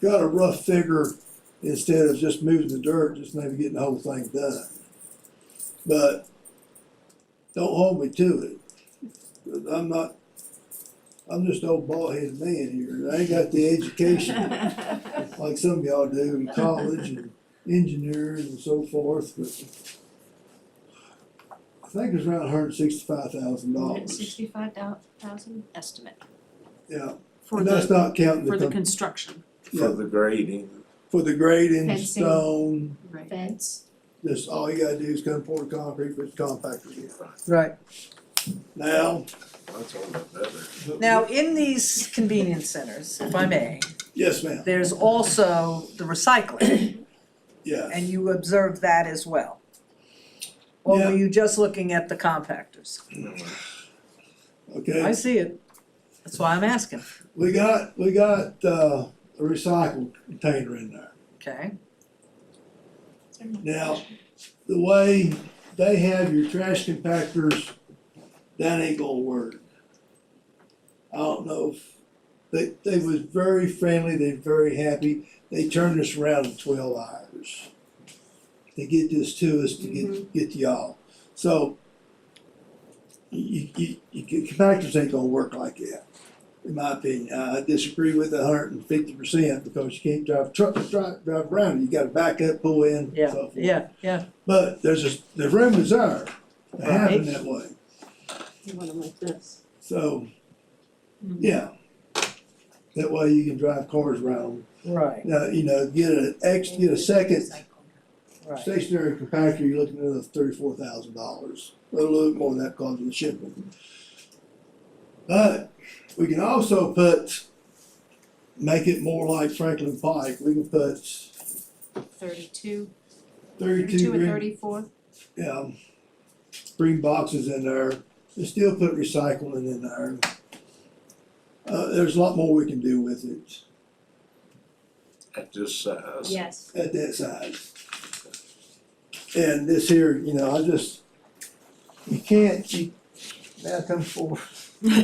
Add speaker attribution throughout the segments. Speaker 1: got a rough figure, instead of just moving the dirt, just maybe getting the whole thing done. But don't hold me to it. 'cause I'm not, I'm just an old bald headed man here. I ain't got the education like some of y'all do in college and engineers and so forth, but I think it's around hundred sixty-five thousand dollars.
Speaker 2: Sixty-five thousand estimate.
Speaker 1: Yeah,
Speaker 3: for
Speaker 1: and that's
Speaker 3: the,
Speaker 1: not counting
Speaker 3: for the
Speaker 1: the, com-
Speaker 3: construction,
Speaker 1: yeah,
Speaker 4: for the grading.
Speaker 1: for the grading,
Speaker 2: Fencing.
Speaker 1: stone,
Speaker 3: right?
Speaker 2: Fence,
Speaker 1: just all you gotta do is come pour the concrete, put the compactor in.
Speaker 5: Right.
Speaker 1: Now.
Speaker 4: That's all that better.
Speaker 5: Now, in these convenience centers, if I may,
Speaker 1: Yes, ma'am,
Speaker 5: there's also the recycling,
Speaker 1: yeah.
Speaker 5: and you observe that as well. Or
Speaker 1: Yeah.
Speaker 5: were you just looking at the compactors? I
Speaker 1: Okay,
Speaker 5: see it, that's why I'm asking,
Speaker 1: we got, we got, uh, a recycled container in there.
Speaker 5: okay?
Speaker 1: Now, the way they have your trash compactors, that ain't gonna work. I don't know if, they, they was very friendly, they very happy, they turned us around in twelve hours. To get this to us, to get, get to y'all, so. You, you, you, compactors ain't gonna work like that, in my opinion, I disagree with a hundred and fifty percent, because you can't drive truck, drive, drive around, you gotta back up, pull in, so
Speaker 5: Yeah,
Speaker 1: forth.
Speaker 5: yeah, yeah,
Speaker 1: But there's a, the room is there, it happened
Speaker 5: Right.
Speaker 1: that way,
Speaker 6: You want them like this.
Speaker 1: so, yeah. That way you can drive cars around,
Speaker 5: right,
Speaker 1: now, you know, get an ex, get a second
Speaker 5: right,
Speaker 1: stationary compactor, you're looking at another thirty-four thousand dollars, a little bit more than that cost of the shipment. But we can also put, make it more like Franklin Pike, we can put thirty-two
Speaker 2: thirty-two, thirty-two and
Speaker 1: ring-
Speaker 2: thirty-four,
Speaker 1: yeah, um, bring boxes in there, and still put recycling in there. Uh, there's a lot more we can do with it
Speaker 4: At this size.
Speaker 2: yes.
Speaker 1: at that size. And this here, you know, I just, you can't, you, now come forward. I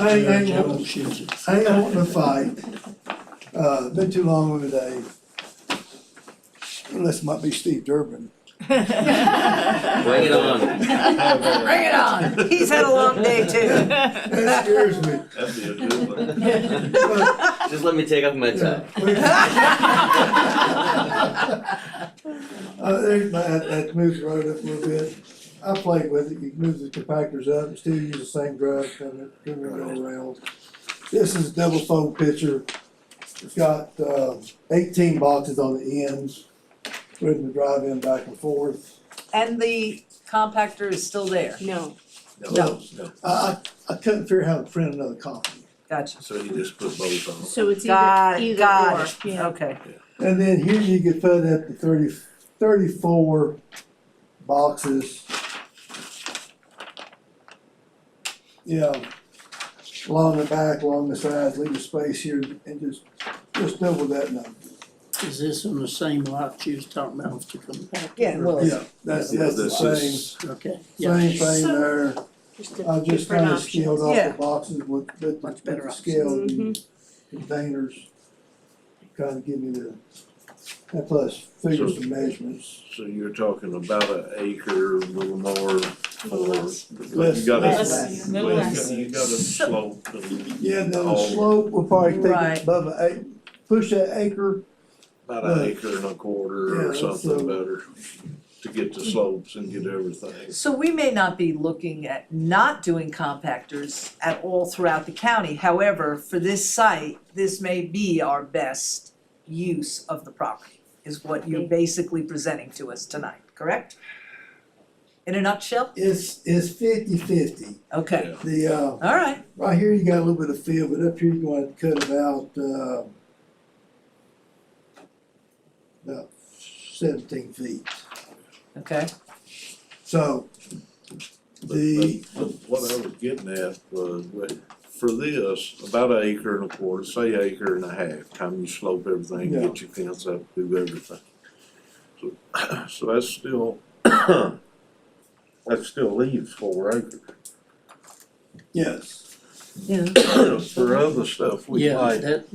Speaker 1: ain't, I ain't wanting, I ain't wanting to fight, uh, been too long of a day. Unless it might be Steve Durbin.
Speaker 7: Bring it on.
Speaker 5: Bring it on, he's had a long day too.
Speaker 1: That scares me.
Speaker 4: That'd be a good one.
Speaker 1: But
Speaker 7: Just let me take off my
Speaker 1: Yeah.
Speaker 7: tie.
Speaker 1: Uh, there's my, that, that moves the road up a little bit. I played with it, you can move the compactors up, and still use the same drive, turn it, turn it all around. This is a double fold pitcher. It's got, uh, eighteen boxes on the ends, where the drive in back and forth.
Speaker 5: And the compactor is still there,
Speaker 6: No,
Speaker 1: No.
Speaker 4: No,
Speaker 1: I, I, I couldn't figure out how to print another copy.
Speaker 5: gotcha,
Speaker 4: so you just put both on.
Speaker 6: so it's
Speaker 5: Got
Speaker 6: either,
Speaker 5: it,
Speaker 6: either
Speaker 5: got
Speaker 6: or,
Speaker 5: it.
Speaker 6: yeah.
Speaker 5: okay,
Speaker 1: And then here you could put up to thirty, thirty-four boxes. Yeah, along the back, along the sides, leave a space here and just, just double that number.
Speaker 8: Is this in the same lot you was talking about with the compactor?
Speaker 5: Yeah, well-
Speaker 1: Yeah, that's, that's the
Speaker 4: This
Speaker 1: same,
Speaker 4: is-
Speaker 8: Okay, yeah.
Speaker 1: same thing
Speaker 6: So-
Speaker 1: there.
Speaker 6: Just a
Speaker 1: I just
Speaker 6: different
Speaker 1: kinda
Speaker 6: options.
Speaker 1: scaled off
Speaker 5: Yeah.
Speaker 1: the boxes with, with the-
Speaker 5: Much
Speaker 1: with
Speaker 5: better
Speaker 1: the
Speaker 5: options. Mm-hmm.
Speaker 1: scale and containers. Kinda give me the, and plus figure
Speaker 4: So-
Speaker 1: some measurements.
Speaker 4: So you're talking about an acre, a little more, or
Speaker 6: Less.
Speaker 4: you gotta,
Speaker 1: Less.
Speaker 4: less, you gotta
Speaker 5: So-
Speaker 4: slope and
Speaker 1: Yeah, no,
Speaker 4: Oh.
Speaker 1: the slope will probably take
Speaker 5: Right.
Speaker 1: it above an acre, push that acre,
Speaker 4: about an acre and a quarter or
Speaker 1: Yeah, so-
Speaker 4: something better to get the slopes and get everything.
Speaker 5: So we may not be looking at not doing compactors at all throughout the county, however, for this site, this may be our best use of the property, is what you're basically presenting to us tonight, correct? In a nutshell,
Speaker 1: it's, it's fifty fifty.
Speaker 5: okay,
Speaker 4: Yeah.
Speaker 1: The, uh,
Speaker 5: all right,
Speaker 1: right here you got a little bit of field, but up here you wanna cut about, uh, about seventeen feet,
Speaker 5: okay,
Speaker 1: so.
Speaker 4: But-
Speaker 1: The-
Speaker 4: But but what I was getting at was, wait, for this, about an acre and a quarter, say acre and a half, time you slope everything,
Speaker 1: Yeah.
Speaker 4: get your fence up, do everything. So, so that's still, that still leaves four acres.
Speaker 1: Yes.
Speaker 4: For other stuff, we
Speaker 8: Yeah,
Speaker 4: like
Speaker 8: that,